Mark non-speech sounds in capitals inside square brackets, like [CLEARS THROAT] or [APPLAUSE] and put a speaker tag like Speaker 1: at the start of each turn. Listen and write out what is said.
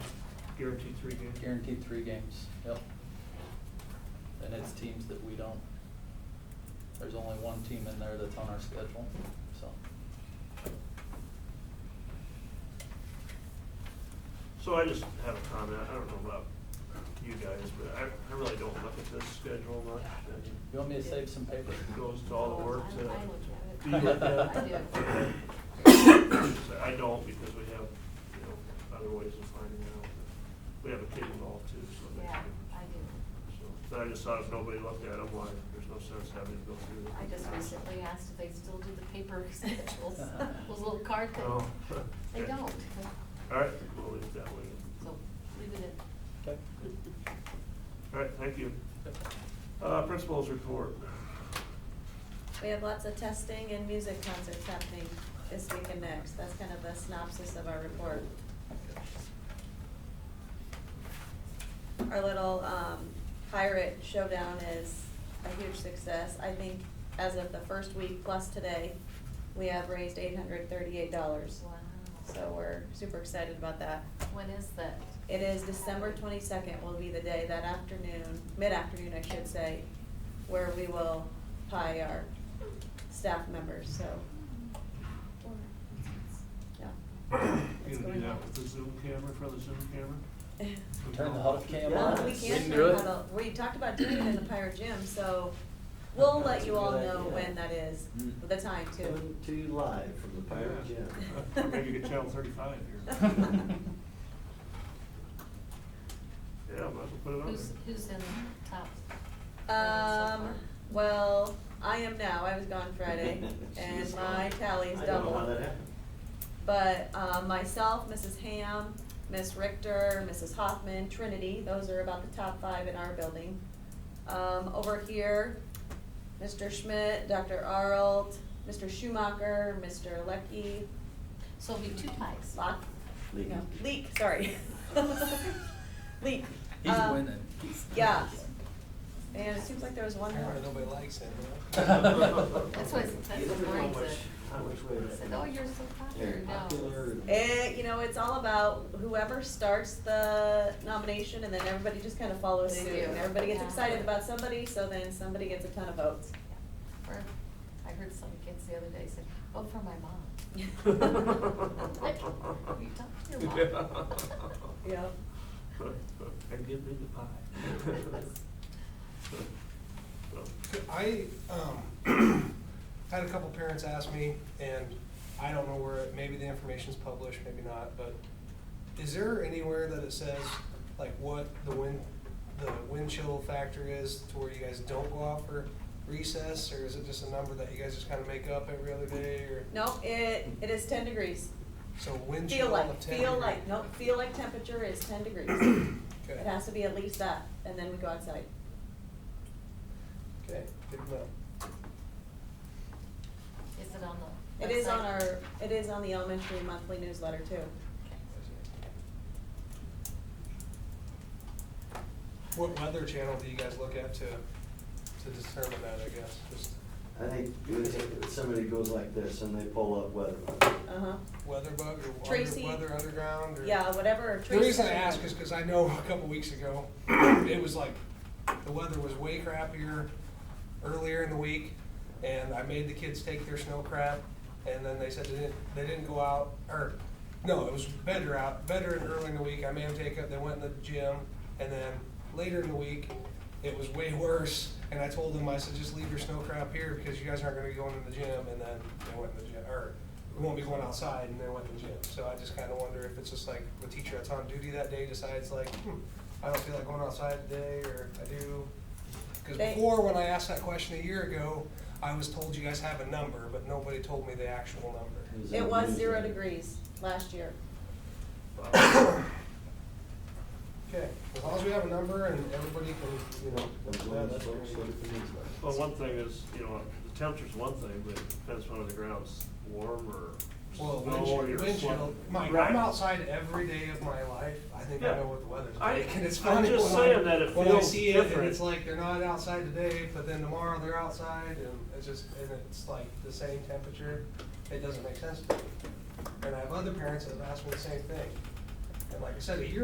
Speaker 1: Guaranteed three games.
Speaker 2: Guaranteed three games, yep. And it's teams that we don't, there's only one team in there that's on our schedule, so.
Speaker 1: So I just have a comment, I don't know about you guys, but I, I really don't look at this schedule much. I mean,
Speaker 2: You want me to save some paper?
Speaker 1: It goes to all the work to.
Speaker 3: I- I look at it.
Speaker 1: be looked at.
Speaker 3: I do.
Speaker 1: So I don't because we have, you know, other ways of finding out. We have a kid involved too, so. it makes a
Speaker 3: Yeah,
Speaker 1: difference.
Speaker 3: I do.
Speaker 1: So, But I just thought if nobody looked at them, why, there's no sense having to go through it.
Speaker 3: I just recently asked if they still do the paper [LAUGHS] schedules, those little card
Speaker 1: Oh,
Speaker 3: things. They
Speaker 1: okay.
Speaker 3: don't,
Speaker 1: [LAUGHS] All right, we'll leave it that way.
Speaker 3: so leave it in.
Speaker 2: Okay.
Speaker 1: All right, thank you. Uh, principals report.
Speaker 4: We have lots of testing and music concerts happening this week and next. That's kind of the synopsis of our report. Our little um, pirate showdown is a huge success. I think as of the first week plus today, we have raised eight hundred thirty-eight dollars.
Speaker 3: Wow.
Speaker 4: So we're super excited about that.
Speaker 3: When is that?
Speaker 4: It is December twenty-second will be the day that afternoon, mid-afternoon I should say, where we will pie our staff members, so, yeah.
Speaker 1: You gonna
Speaker 4: It's
Speaker 1: do
Speaker 4: going
Speaker 1: that
Speaker 4: on.
Speaker 1: with the Zoom camera, for the Zoom camera?
Speaker 5: [LAUGHS]
Speaker 2: Turn the huddle cam
Speaker 1: Yeah.
Speaker 4: Well,
Speaker 2: on.
Speaker 4: we
Speaker 2: We
Speaker 4: can
Speaker 2: can do
Speaker 4: turn
Speaker 2: it.
Speaker 4: huddle, we [LAUGHS] talked about doing it in the pirate gym, so we'll let
Speaker 5: That's
Speaker 4: you
Speaker 5: a
Speaker 4: all
Speaker 5: good
Speaker 4: know
Speaker 5: idea.
Speaker 4: when that is,
Speaker 5: Mm.
Speaker 4: the time
Speaker 5: Coming
Speaker 4: too.
Speaker 5: to you live from the Pirate Gym. [LAUGHS]
Speaker 1: Yeah. [LAUGHS] Maybe you could channel thirty-five
Speaker 3: [LAUGHS]
Speaker 1: here. Yeah, might as well put it on
Speaker 3: Who's,
Speaker 1: there.
Speaker 3: who's in top?
Speaker 4: Um, well, I am now, I was gone [LAUGHS]
Speaker 5: [LAUGHS]
Speaker 4: Friday, and
Speaker 5: She's
Speaker 4: my
Speaker 5: gone.
Speaker 4: tally's
Speaker 5: I
Speaker 4: double.
Speaker 5: don't know how that happened.
Speaker 4: But uh, myself, Mrs. Ham, Miss Richter, Mrs. Hoffman, Trinity, those are about the top five in our building. Um, Over here, Mr. Schmidt, Dr. Arlt, Mr. Schumacher, Mr. Lecky,
Speaker 3: So it'll be two ties.
Speaker 4: Lock?
Speaker 5: Leak.
Speaker 4: No,
Speaker 2: [LAUGHS]
Speaker 4: Leak, sorry. Leak.
Speaker 2: [LAUGHS] He's
Speaker 4: Um,
Speaker 2: winning. [LAUGHS]
Speaker 4: Yeah. And it seems like there was one more.
Speaker 6: Apparently nobody likes him, you know?
Speaker 3: [LAUGHS] That's what, that's
Speaker 5: You
Speaker 3: what
Speaker 5: never know
Speaker 3: mine
Speaker 5: which-
Speaker 3: said.
Speaker 5: How much way
Speaker 3: I
Speaker 5: that.
Speaker 3: said, oh, [LAUGHS] you're so popular
Speaker 5: They're
Speaker 3: now.
Speaker 5: popular.
Speaker 4: It, Eh, you know, it's all about whoever starts the nomination and then everybody just kind of follows
Speaker 3: They
Speaker 4: suit.
Speaker 3: do.
Speaker 4: And everybody gets
Speaker 3: Yeah.
Speaker 4: excited about somebody, so then somebody gets a ton of votes.
Speaker 3: Yeah. Or, I heard some kids the other day say, vote for my mom. Like, you talk to your mom. [LAUGHS]
Speaker 1: [LAUGHS]
Speaker 4: Yeah.
Speaker 1: And give me the pie.
Speaker 6: [LAUGHS]
Speaker 1: So,
Speaker 6: I, um, [CLEARS THROAT] had a couple parents ask me, and I don't know where, it- maybe the information's published, maybe not, but is there anywhere that it says, like, what the wind, the wind chill factor is to where you guys don't go out for recess, or is it just a number that you guys just kinda make up every other day, or?
Speaker 4: No, it, it is ten degrees.
Speaker 6: So wind
Speaker 4: Feel
Speaker 6: chill
Speaker 4: like,
Speaker 6: of ten?
Speaker 4: feel like, no, feel like temperature is ten degrees.
Speaker 6: [COUGHS] Okay.
Speaker 4: It has to be at least that, and then we go outside.
Speaker 6: Okay, good to know.
Speaker 3: Is it on the?
Speaker 4: It is on
Speaker 3: website?
Speaker 4: our, it is on the elementary monthly newsletter too.
Speaker 6: What weather channel do you guys look at to, to determine that, I guess, just
Speaker 5: I think you would think that somebody goes like this and they pull up weather.
Speaker 4: Uh-huh.
Speaker 6: weather bug or
Speaker 4: Tracy-
Speaker 6: under, weather underground or?
Speaker 4: Yeah, whatever.
Speaker 6: The reason I
Speaker 4: Tracy-
Speaker 6: ask is because I know a couple weeks ago, it was like, the weather was way crappier earlier in the week, and I made the kids take their snow crap, and then they said they didn't, they didn't go out, or, no, it was better out, better and early in the week, I made them take up, they went in the gym, and then later in the week, it was way worse, and I told them, I said, just leave your snow crap here, because you guys aren't gonna be going to the gym, and then they went in the gym, or, we won't be going outside, and they went to the gym, so I just kinda wonder if it's just like, the teacher that's on duty that day decides like, hmm, I don't feel like going outside today, or I do, because
Speaker 4: They-
Speaker 6: before, when I asked that question a year ago, I was told you guys have a number, but nobody told me the actual number.
Speaker 4: It was zero degrees last year.
Speaker 6: Okay, as long as we have a number and everybody can, you know.
Speaker 5: As
Speaker 6: yeah,
Speaker 5: long as
Speaker 6: that's
Speaker 5: folks
Speaker 6: great.
Speaker 5: look at the newsletter.
Speaker 1: Well, one thing is, you know, the temperature's one thing, but it depends whether the ground's warm or snow
Speaker 6: Well, wind
Speaker 1: or
Speaker 6: chill,
Speaker 1: you're
Speaker 6: wind chill,
Speaker 1: slumped.
Speaker 6: Mike,
Speaker 1: Right.
Speaker 6: I'm outside every day of my life, I think I
Speaker 1: Yeah.
Speaker 6: know what the weather's
Speaker 1: I-
Speaker 6: like, and it's
Speaker 1: I'm
Speaker 6: funny
Speaker 1: just
Speaker 6: when I-
Speaker 1: saying that it
Speaker 6: When I
Speaker 1: feels
Speaker 6: see it, and
Speaker 1: different.
Speaker 6: it's like, they're not outside today, but then tomorrow they're outside, and it's just, and it's like the same temperature, it doesn't make sense to me. And I have other parents that have asked me the same thing, and like I said, a year